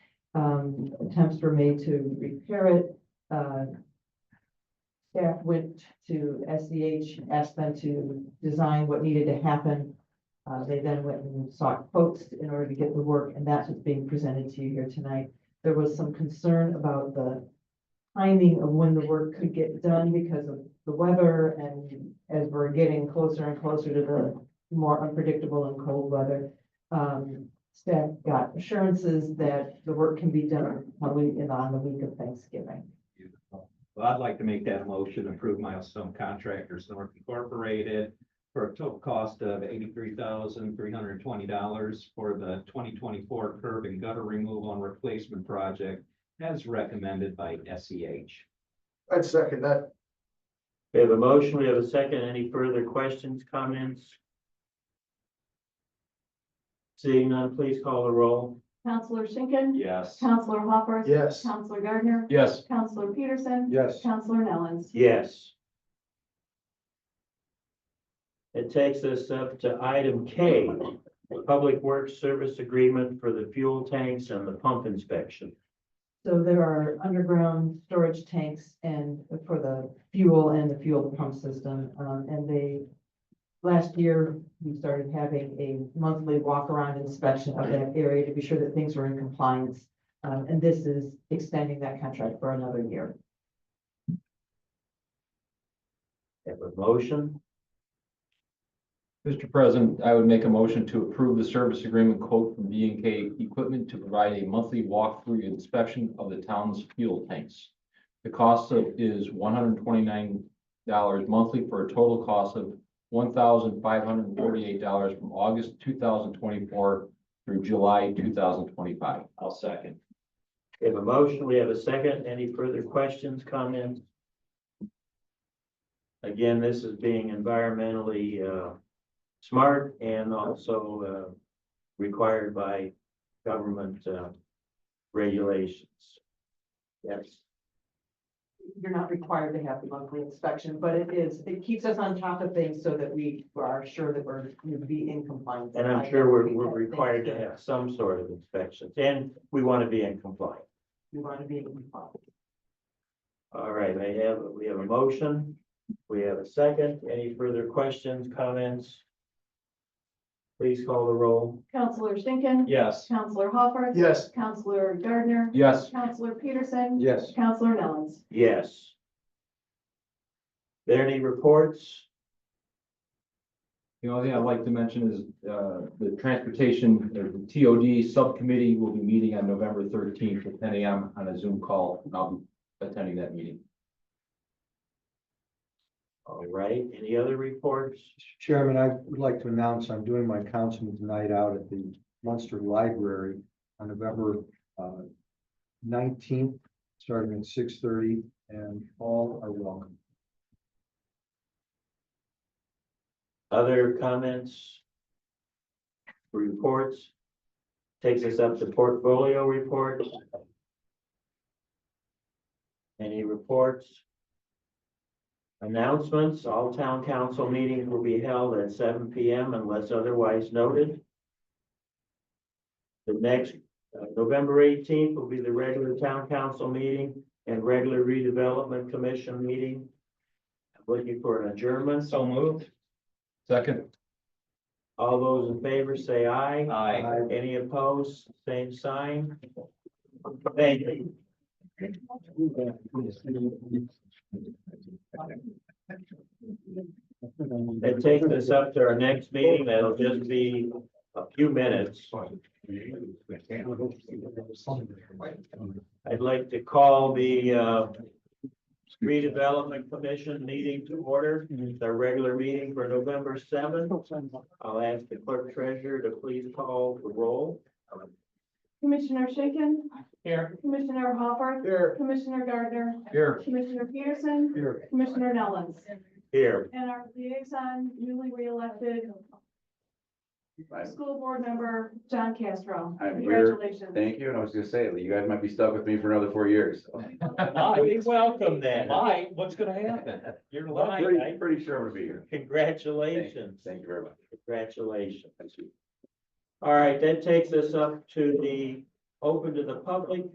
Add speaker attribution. Speaker 1: um, attempts were made to repair it. Uh, Staff went to SEH, asked them to design what needed to happen. Uh, they then went and sought quotes in order to get the work, and that's what's being presented to you here tonight. There was some concern about the timing of when the work could get done because of the weather and as we're getting closer and closer to the more unpredictable and cold weather. Um, staff got assurances that the work can be done probably in on the week of Thanksgiving.
Speaker 2: Beautiful. Well, I'd like to make that motion, approve Milestone Contractors North Incorporated for a total cost of eighty-three thousand, three hundred and twenty dollars for the twenty twenty-four curb and gutter removal and replacement project as recommended by E SEH.
Speaker 3: I'd second that.
Speaker 4: We have a motion, we have a second. Any further questions, comments? Seeing none, please call the roll.
Speaker 5: Counselor Schinkin.
Speaker 2: Yes.
Speaker 5: Counselor Hopper.
Speaker 3: Yes.
Speaker 5: Counselor Gardner.
Speaker 3: Yes.
Speaker 5: Counselor Peterson.
Speaker 3: Yes.
Speaker 5: Counselor Nellens.
Speaker 4: Yes. It takes us up to item K, the Public Works Service Agreement for the fuel tanks and the pump inspection.
Speaker 1: So there are underground storage tanks and for the fuel and the fuel pump system, um, and they. Last year, we started having a monthly walk around inspection of that area to be sure that things were in compliance. Um, and this is extending that contract for another year.
Speaker 4: Have a motion?
Speaker 6: Mr. President, I would make a motion to approve the service agreement quote from B and K Equipment to provide a monthly walkthrough inspection of the town's fuel tanks. The cost of is one hundred twenty-nine dollars monthly for a total cost of one thousand five hundred forty-eight dollars from August two thousand twenty-four through July two thousand twenty-five.
Speaker 2: I'll second.
Speaker 4: We have a motion, we have a second. Any further questions, comments? Again, this is being environmentally uh, smart and also uh, required by government uh, regulations. Yes,
Speaker 1: You're not required to have the monthly inspection, but it is, it keeps us on top of things so that we are sure that we're, we'd be in compliance.
Speaker 4: and I'm sure we're, we're
Speaker 1: I think
Speaker 4: required to
Speaker 1: that
Speaker 4: have some sort of inspections and we want to be in compliance.
Speaker 1: We want to be in compliance.
Speaker 4: All right, I have, we have a motion. We have a second. Any further questions, comments? Please call the roll.
Speaker 5: Counselor Schinkin.
Speaker 2: Yes.
Speaker 5: Counselor Hopper.
Speaker 3: Yes.
Speaker 5: Counselor Gardner.
Speaker 6: Yes.
Speaker 5: Counselor Peterson.
Speaker 3: Yes.
Speaker 5: Counselor Nellens.
Speaker 4: Yes. There any reports?
Speaker 6: The only thing I'd like to mention is, uh, the transportation, the TOD subcommittee will be meeting on November thirteenth at ten AM on a Zoom call, and I'll be attending that meeting.
Speaker 4: All right, any other reports?
Speaker 7: Chairman, I would like to announce I'm doing my councilman's night out at the Munster Library on November uh, nineteenth, starting at six thirty, and all are welcome.
Speaker 4: Other comments? Reports? Takes us up to portfolio report. Any reports? Announcements, all town council meetings will be held at seven P M unless otherwise noted. The next, uh, November eighteenth will be the regular town council meeting and regular redevelopment commission meeting. Looking for an adjournment.
Speaker 2: So moved.
Speaker 6: Second,
Speaker 4: All those in favor say aye.
Speaker 2: Aye.
Speaker 7: I-
Speaker 4: Any opposed, same sign. Thank you. That takes us up to our next meeting. That'll just be a few minutes. I'd like to call the uh, redevelopment commission meeting to order. It's our regular meeting for November seventh. I'll ask the clerk treasurer to please call the roll.
Speaker 5: Commissioner Schinkin.
Speaker 4: Here.
Speaker 5: Commissioner Hopper.
Speaker 3: Here.
Speaker 5: Commissioner Gardner.
Speaker 6: here.
Speaker 5: Commissioner Peterson.
Speaker 3: Here.
Speaker 5: Commissioner Nellens.
Speaker 4: Here.
Speaker 5: And our liaison, newly reelected school board member, John Castro.
Speaker 8: I'm here.
Speaker 5: Congratulations.
Speaker 8: Thank you, and I was gonna say, you guys might be stuck with me for another four years.
Speaker 4: welcome then.
Speaker 2: Why? What's gonna happen? You're lying.
Speaker 8: Pretty, pretty sure I'm gonna be here. Thank
Speaker 4: Congratulations.
Speaker 8: thank you very much.
Speaker 4: Congratulations.
Speaker 8: Thank you.
Speaker 4: All right, that takes us up to the, open to the public